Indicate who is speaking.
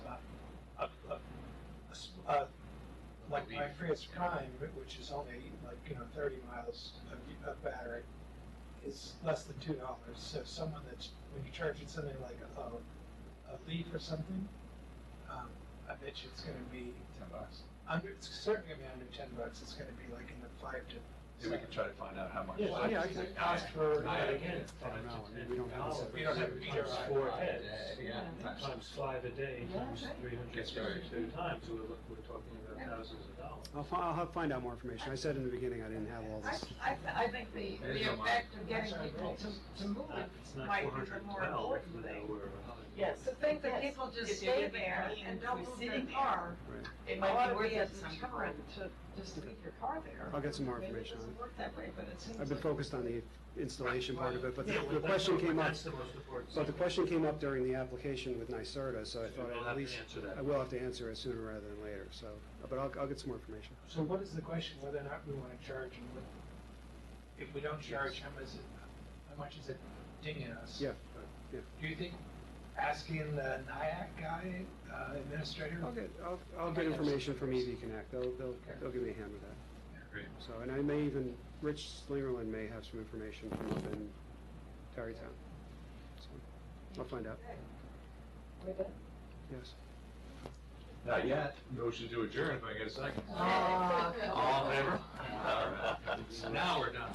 Speaker 1: my first prime, which is only like, you know, thirty miles of, of battery, is less than two dollars. So someone that's, when you charge it something like a, a leaf or something, um, I bet you it's gonna be
Speaker 2: ten bucks.
Speaker 1: under, it's certainly gonna be under ten bucks. It's gonna be like in the five to.
Speaker 2: Maybe we can try to find out how much.
Speaker 1: Yeah, yeah, I can ask for,
Speaker 3: I
Speaker 1: I
Speaker 3: again, it's
Speaker 4: I
Speaker 3: times
Speaker 4: don't know, I mean,
Speaker 3: ten
Speaker 4: we don't have
Speaker 3: dollars.
Speaker 4: a
Speaker 1: We don't have
Speaker 4: separate
Speaker 1: meter
Speaker 4: times
Speaker 1: on
Speaker 4: four
Speaker 3: our
Speaker 4: heads.
Speaker 3: heads.
Speaker 2: Yeah, times-
Speaker 4: Times five a day,
Speaker 5: Yeah,
Speaker 4: times
Speaker 5: right.
Speaker 4: three hundred
Speaker 2: Gets very-
Speaker 4: sixty-two times, we're, look- we're talking
Speaker 5: Yeah.
Speaker 4: about thousands of dollars.
Speaker 6: I'll, fi- I'll have- find out more information. I said in the beginning I didn't have all
Speaker 5: I,
Speaker 6: this.
Speaker 5: I, I think the,
Speaker 2: It is
Speaker 5: the
Speaker 2: a lot.
Speaker 5: effect of getting people to, to move
Speaker 4: Not- It's
Speaker 5: it
Speaker 4: not
Speaker 5: might be
Speaker 4: four
Speaker 5: the
Speaker 4: hundred
Speaker 5: more
Speaker 4: twelve,
Speaker 5: important
Speaker 4: now
Speaker 5: thing.
Speaker 4: we're a hundred.
Speaker 7: Yes.
Speaker 5: To think that
Speaker 7: Yes.
Speaker 5: people just
Speaker 7: If you're
Speaker 5: stay
Speaker 7: getting
Speaker 5: there
Speaker 7: clean
Speaker 5: and
Speaker 7: for
Speaker 5: don't move their
Speaker 7: sitting there,
Speaker 5: car,
Speaker 7: It
Speaker 5: it ought
Speaker 7: might be
Speaker 5: to
Speaker 7: worth
Speaker 5: be
Speaker 7: it
Speaker 5: a
Speaker 7: sometime.
Speaker 5: deterrent to, just to leave your car there.
Speaker 6: I'll get some more
Speaker 5: Maybe it
Speaker 6: information on
Speaker 5: doesn't work that way, but it seems
Speaker 6: I've been
Speaker 5: like-
Speaker 6: focused on the installation part of it, but the
Speaker 4: Yeah, well,
Speaker 6: the
Speaker 4: that's
Speaker 6: question
Speaker 4: what-
Speaker 6: came up,
Speaker 4: That's the most important.
Speaker 6: but the question came up during the application with NYSERDA, so I
Speaker 4: So
Speaker 6: thought
Speaker 4: we'll
Speaker 6: I'd
Speaker 4: have
Speaker 6: at
Speaker 4: to
Speaker 6: least,
Speaker 4: answer that.
Speaker 6: I will have to answer it sooner rather than later, so, but I'll, I'll get some more information.
Speaker 1: so what is the question, whether or not we wanna charge and what, if we don't charge, how much is it, how much is it dinging us?
Speaker 6: Yeah, yeah.
Speaker 1: Do you think asking the NIAC guy, uh, administrator?
Speaker 6: I'll get, I'll, I'll get information from EV Connect. They'll, they'll, they'll give me a hand with that.
Speaker 2: Great.
Speaker 6: So, and I may even, Rich Slingerland may have some information from up in Tarrytown. So, I'll find out,
Speaker 7: We're done?
Speaker 6: yes.
Speaker 2: Not yet. Motion to adjourn, if I get a second.
Speaker 5: Oh.
Speaker 1: Uh,
Speaker 2: All in favor? All right. Now we're done.